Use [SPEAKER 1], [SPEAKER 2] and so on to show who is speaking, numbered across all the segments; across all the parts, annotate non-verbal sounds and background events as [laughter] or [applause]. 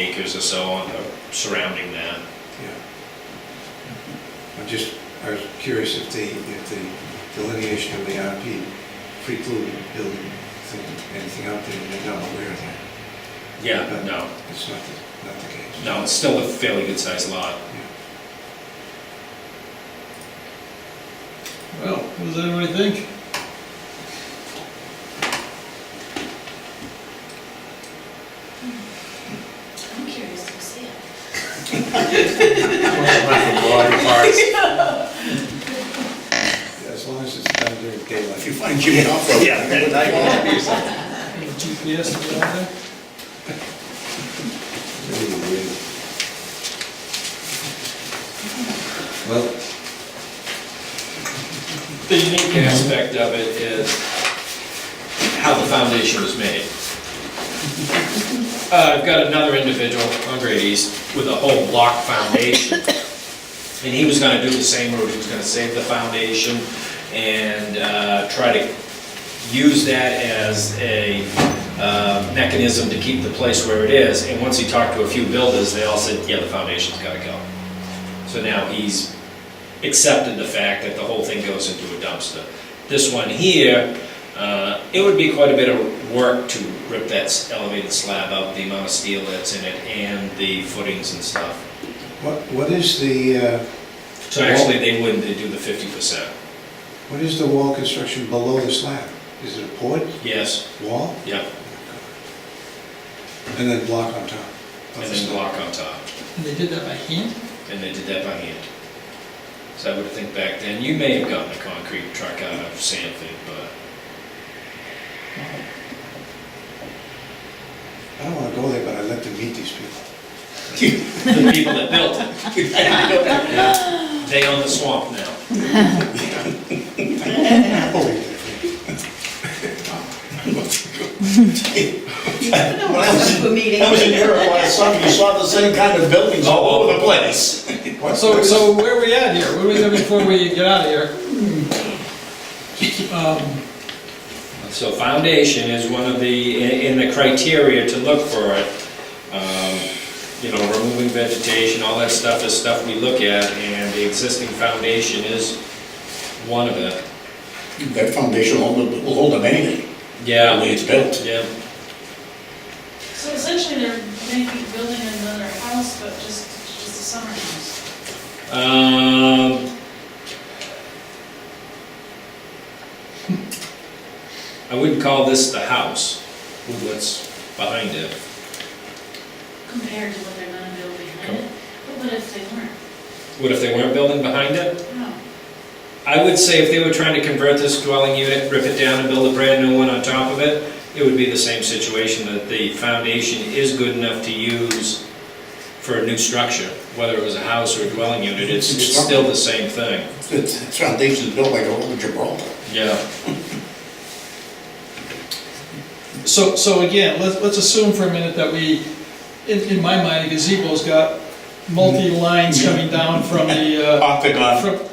[SPEAKER 1] acres or so on, uh, surrounding that.
[SPEAKER 2] Yeah. I'm just, I was curious if the, if the delineation of the RP precluded building thing- anything out there, and they're not aware of that.
[SPEAKER 1] Yeah,
[SPEAKER 2] But
[SPEAKER 1] no,
[SPEAKER 2] It's not the, not the case.
[SPEAKER 1] no, it's still a fairly good-sized lot.
[SPEAKER 3] Well, what does everybody think?
[SPEAKER 4] I'm curious to see it.
[SPEAKER 2] As long as it's done during daylight.
[SPEAKER 5] If you find Jimmy Hoffa.
[SPEAKER 1] Yeah.
[SPEAKER 5] Yeah.
[SPEAKER 3] Little GPS to get out there?
[SPEAKER 2] Really weird. Well,
[SPEAKER 1] The unique aspect of it is how the foundation was made. Uh, I've got another individual on Great East with a whole block foundation. And he was gonna do the same route, he was gonna save the foundation and uh, try to use that as a uh, mechanism to keep the place where it is. And once he talked to a few builders, they all said, yeah, the foundation's gotta go. So now he's accepted the fact that the whole thing goes into a dumpster. This one here, uh, it would be quite a bit of work to rip that s- elevated slab out, the amount of steel that's in it, and the footings and stuff.
[SPEAKER 2] what, what is the, uh,
[SPEAKER 1] So actually, they wouldn't, they do the fifty percent.
[SPEAKER 2] what is the wall construction below the slab? Is it a port
[SPEAKER 1] Yes,
[SPEAKER 2] wall?
[SPEAKER 1] yeah,
[SPEAKER 2] And then block on top?
[SPEAKER 1] and then block on top,
[SPEAKER 3] And they did that by hand?
[SPEAKER 1] and they did that by hand. So I would think back then, you may have gotten a concrete truck out of Sanford, but
[SPEAKER 2] I don't wanna go there, but I'd like to meet these people.
[SPEAKER 1] the people that built it, [laughs] they own the swamp now.
[SPEAKER 2] Holy
[SPEAKER 5] When I was in- when I was in Europe last summer, you saw the same kind of buildings all over the place.
[SPEAKER 2] What-
[SPEAKER 3] So, so where are we at here? What do we do before we get out of here? Um,
[SPEAKER 1] So foundation is one of the, in in the criteria to look for it, um, you know, removing vegetation, all that stuff is stuff we look at, and the existing foundation is one of it.
[SPEAKER 5] That foundation will hold, will hold them anything, the way
[SPEAKER 1] Yeah,
[SPEAKER 5] it's built.
[SPEAKER 1] yeah,
[SPEAKER 4] So essentially, they're maybe building another house, but just, just a summer house.
[SPEAKER 1] um. I wouldn't call this the house, with what's behind it.
[SPEAKER 4] Compared to what they're gonna build behind it. But what if they weren't?
[SPEAKER 1] What if they weren't building behind it?
[SPEAKER 4] No.
[SPEAKER 1] I would say if they were trying to convert this dwelling unit, rip it down and build a brand new one on top of it, it would be the same situation, that the foundation is good enough to use for a new structure, whether it was a house or a dwelling unit, it's, it's still the same thing.
[SPEAKER 5] It's, it's foundation's built like a old Gibraltar.
[SPEAKER 1] Yeah.
[SPEAKER 3] So, so again, let's, let's assume for a minute that we, in, in my mind, a gazebo's got multi-lines coming down from the, uh,
[SPEAKER 5] Octagon.
[SPEAKER 3] From-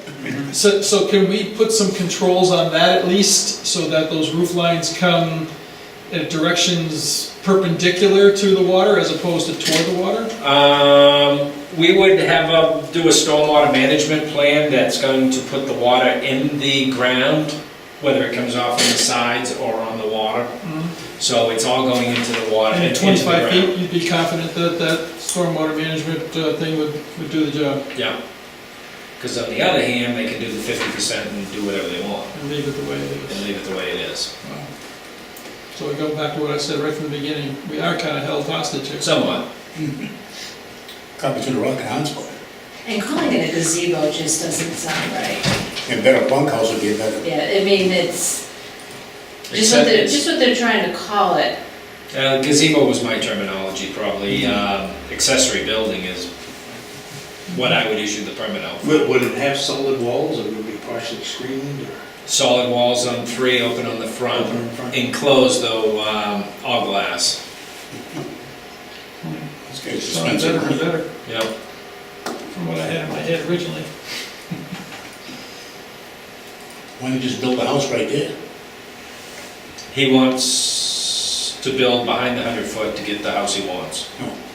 [SPEAKER 3] So, so can we put some controls on that at least, so that those roof lines come at directions perpendicular to the water as opposed to toward the water?
[SPEAKER 1] Um, we would have a, do a stormwater management plan that's going to put the water in the ground, whether it comes off on the sides or on the water. So it's all going into the water
[SPEAKER 3] Mm-hmm. And
[SPEAKER 1] and
[SPEAKER 3] at
[SPEAKER 1] into the ground.
[SPEAKER 3] 25 feet, you'd be confident that that stormwater management uh, thing would, would do the job
[SPEAKER 1] Yeah. Because on the other hand, they can do the fifty percent and do whatever they want
[SPEAKER 3] and leave it the way it
[SPEAKER 1] and
[SPEAKER 3] is.
[SPEAKER 1] leave it the way it is.
[SPEAKER 3] So we go back to what I said right from the beginning, we are kind of held hostage here.
[SPEAKER 1] Somewhat.
[SPEAKER 5] Copy to the Rock and Hans Club.
[SPEAKER 6] And calling it a gazebo just doesn't sound right.
[SPEAKER 5] And better bunkhouse would be a better.
[SPEAKER 6] Yeah, I mean, it's, just what
[SPEAKER 1] Except
[SPEAKER 6] they're,
[SPEAKER 1] it's-
[SPEAKER 6] just what they're trying to call it.
[SPEAKER 1] uh, gazebo was my terminology, probably. Um, Accessory building is what I would issue the permit out. for.
[SPEAKER 7] Would, would it have solid walls, or would it be partially screened, or?
[SPEAKER 1] Solid walls on three, open on the
[SPEAKER 7] Open in
[SPEAKER 1] front,
[SPEAKER 7] front.
[SPEAKER 1] enclosed though, um, all glass.
[SPEAKER 5] This guy's
[SPEAKER 3] Sounds better and
[SPEAKER 5] expensive.
[SPEAKER 3] better
[SPEAKER 1] Yep.
[SPEAKER 3] from what I had in my head originally.
[SPEAKER 5] Why don't you just build a house right there?
[SPEAKER 1] He wants to build behind the hundred foot to get the house he wants.
[SPEAKER 5] No.